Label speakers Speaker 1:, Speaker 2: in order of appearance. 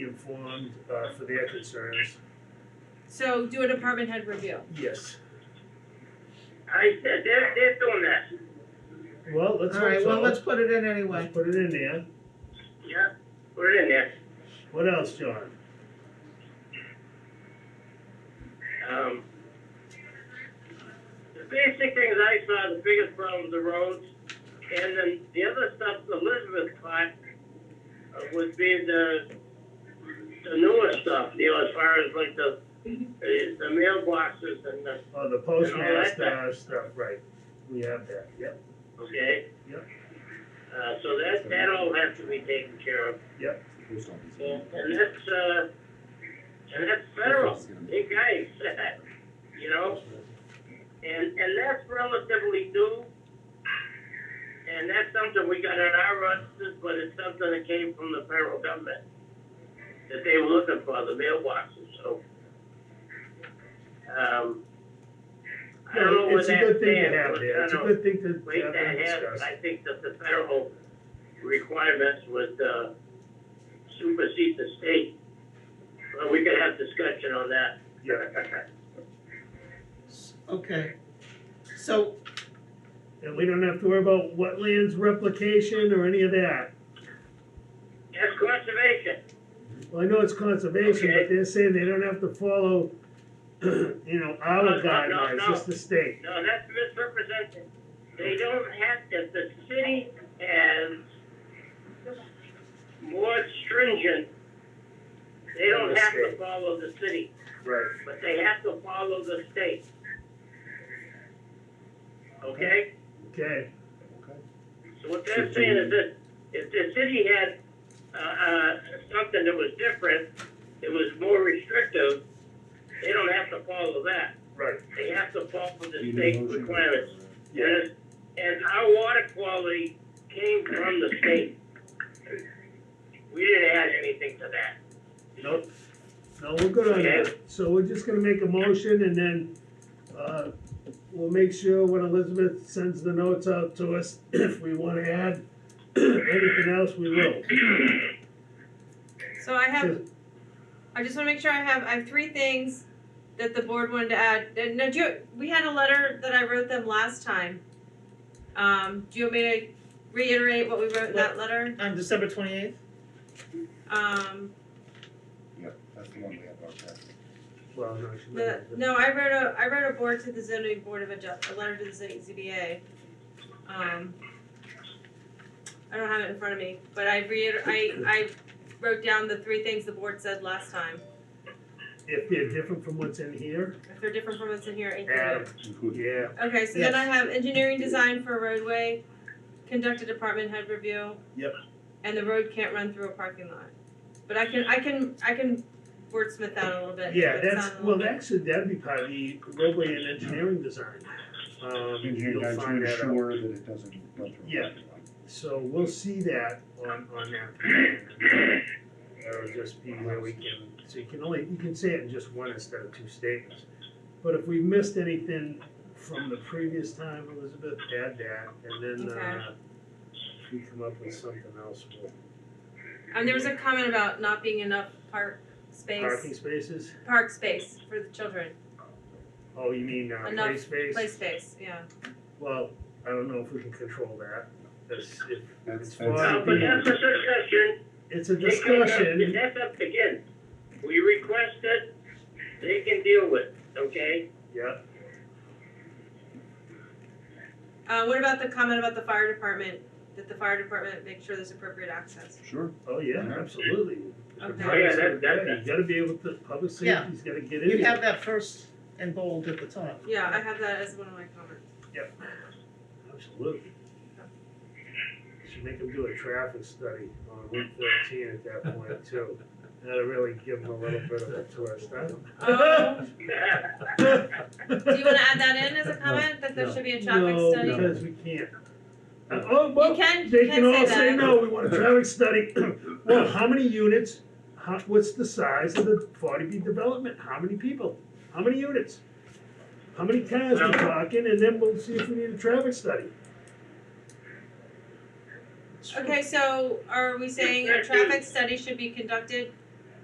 Speaker 1: informed uh for their concerns.
Speaker 2: So do a department head review.
Speaker 1: Yes.
Speaker 3: I, they're, they're doing that,
Speaker 1: Well, let's hope
Speaker 4: Alright,
Speaker 1: so.
Speaker 4: well, let's put it in anyway.
Speaker 1: Let's put it in there.
Speaker 3: yeah, put it in there.
Speaker 1: What else, John?
Speaker 3: Um, the basic things I saw, the biggest problem, the roads, and then the other stuff Elizabeth caught uh, would be the, the newer stuff, you know, as far as like the, the the mailboxes and the,
Speaker 1: Oh, the postmaster stuff, right. We have that, yep.
Speaker 3: okay?
Speaker 1: Yep.
Speaker 3: Uh, so that, that all has to be taken care of, and, and that's, uh, and that's federal, big guys, you know? And, and that's relatively new. And that's something we got in our registers, but it's something that came from the federal government. That they were looking for, the mailboxes, so. Um, I don't know where
Speaker 1: It's
Speaker 3: that
Speaker 1: a good thing to have
Speaker 3: stands, but
Speaker 1: there. It's a
Speaker 3: I don't know.
Speaker 1: good thing to
Speaker 3: We
Speaker 1: have
Speaker 3: that
Speaker 1: and
Speaker 3: has,
Speaker 1: discuss.
Speaker 3: I think that the federal requirements would, uh, supersede the state. But we could have discussion on that.
Speaker 1: Yeah,
Speaker 4: Okay. So,
Speaker 1: and we don't have to worry about wetlands replication or any of that.
Speaker 3: That's conservation.
Speaker 1: Well, I know it's conservation, but
Speaker 3: Okay.
Speaker 1: they're saying they don't have to follow, you know,
Speaker 3: No,
Speaker 1: our
Speaker 3: no, no,
Speaker 1: guidelines,
Speaker 3: no.
Speaker 1: just the state.
Speaker 3: No, that's misrepresented. They don't have, to. the city has more stringent, they don't have to follow the city,
Speaker 1: Right.
Speaker 3: but they have to follow the state. Okay?
Speaker 1: Okay,
Speaker 3: So what they're saying is that if the city had, uh, uh, something that was different, it was more restrictive, they don't have to follow that.
Speaker 1: right.
Speaker 3: They have to follow the
Speaker 5: You
Speaker 3: state
Speaker 5: need a motion?
Speaker 3: requirements. And, and our water quality came from the state. We didn't add anything to that.
Speaker 1: Nope. No, we're good on that. So we're just gonna make a motion and then, uh, we'll make sure when Elizabeth sends the notes out to us, if we wanna add anything else, we will.
Speaker 2: So I have, I just wanna make sure I have, I have three things that the board wanted to add. Uh, No, do you, we had a letter that I wrote them last time. Um, do you want me to reiterate what we wrote in that letter?
Speaker 4: on December twenty-eighth?
Speaker 2: Um,
Speaker 5: That's the one we have, okay.
Speaker 1: Well, no, she might
Speaker 2: the,
Speaker 1: have-
Speaker 2: no, I wrote a, I wrote a board to the zoning board of adjust, a letter to the zoning ZBA. Um, I don't have it in front of me, but I reiter, I, I wrote down the three things the board said last time.
Speaker 1: If they're different from what's in here,
Speaker 2: If they're different from what's in here, include it.
Speaker 1: add 'em. yeah.
Speaker 2: Okay, so then I have engineering design for roadway, conduct a department head review.
Speaker 1: Yep.
Speaker 2: And the road can't run through a parking lot. But I can, I can, I can wordsmith that a little bit.
Speaker 1: Yeah,
Speaker 2: make it
Speaker 1: that's,
Speaker 2: sound a
Speaker 1: well,
Speaker 2: little bit-
Speaker 1: actually, that'd be part of the roadway and engineering design. Um,
Speaker 5: Engineering
Speaker 1: you'll
Speaker 5: guys to
Speaker 1: find that out.
Speaker 5: ensure that it doesn't run through.
Speaker 1: Yeah. So we'll see that on, on that. plan. That'll just be where we can, so you can only, you can say it in just one instead of two statements. But if we missed anything from the previous time, Elizabeth, add that, and then, uh, if we come up with something else, we'll-
Speaker 2: And there was a comment about not being enough park
Speaker 1: parking
Speaker 2: space,
Speaker 1: spaces?
Speaker 2: park space for the children,
Speaker 1: Oh, you mean, uh, play
Speaker 2: Enough
Speaker 1: space?
Speaker 2: play space, yeah.
Speaker 1: Well, I don't know if we can control that, that's, if,
Speaker 5: That's,
Speaker 3: Uh,
Speaker 1: Well,
Speaker 5: that's,
Speaker 3: But that's a discussion.
Speaker 1: it's a
Speaker 3: They can-
Speaker 1: discussion,
Speaker 3: That's up to Ken. We requested, they can deal with, okay?
Speaker 1: yeah,
Speaker 2: Uh, what about the comment about the fire department, that the fire department make sure there's appropriate access?
Speaker 5: sure.
Speaker 1: oh, yeah, absolutely.
Speaker 2: Okay.
Speaker 3: Oh, yeah, that- that-
Speaker 1: You gotta be able to, public
Speaker 4: Yeah.
Speaker 1: safety's gotta get in there.
Speaker 4: You have that first and bold at the top.
Speaker 2: Yeah, I have that as one of my comments.
Speaker 1: Yep, absolutely. Should make them do a traffic study on Route thirteen at that point too. That'll really give them a little bit of a twist, huh?
Speaker 2: Oh, do you
Speaker 1: Do
Speaker 2: wanna add that in as a comment, that there
Speaker 1: No.
Speaker 2: should be a traffic study?
Speaker 1: No, because we can't. Uh, Oh,
Speaker 2: You
Speaker 1: well,
Speaker 2: can,
Speaker 1: they
Speaker 2: you
Speaker 1: can
Speaker 2: can
Speaker 1: all
Speaker 2: say
Speaker 1: say,
Speaker 2: that.
Speaker 1: no, we want a traffic study. Well, how many units, how, what's the size of the forty B development, how many people, how many units? How many cars we talking, and then we'll see if we need a traffic study.
Speaker 2: Okay, so are we saying a traffic study should be conducted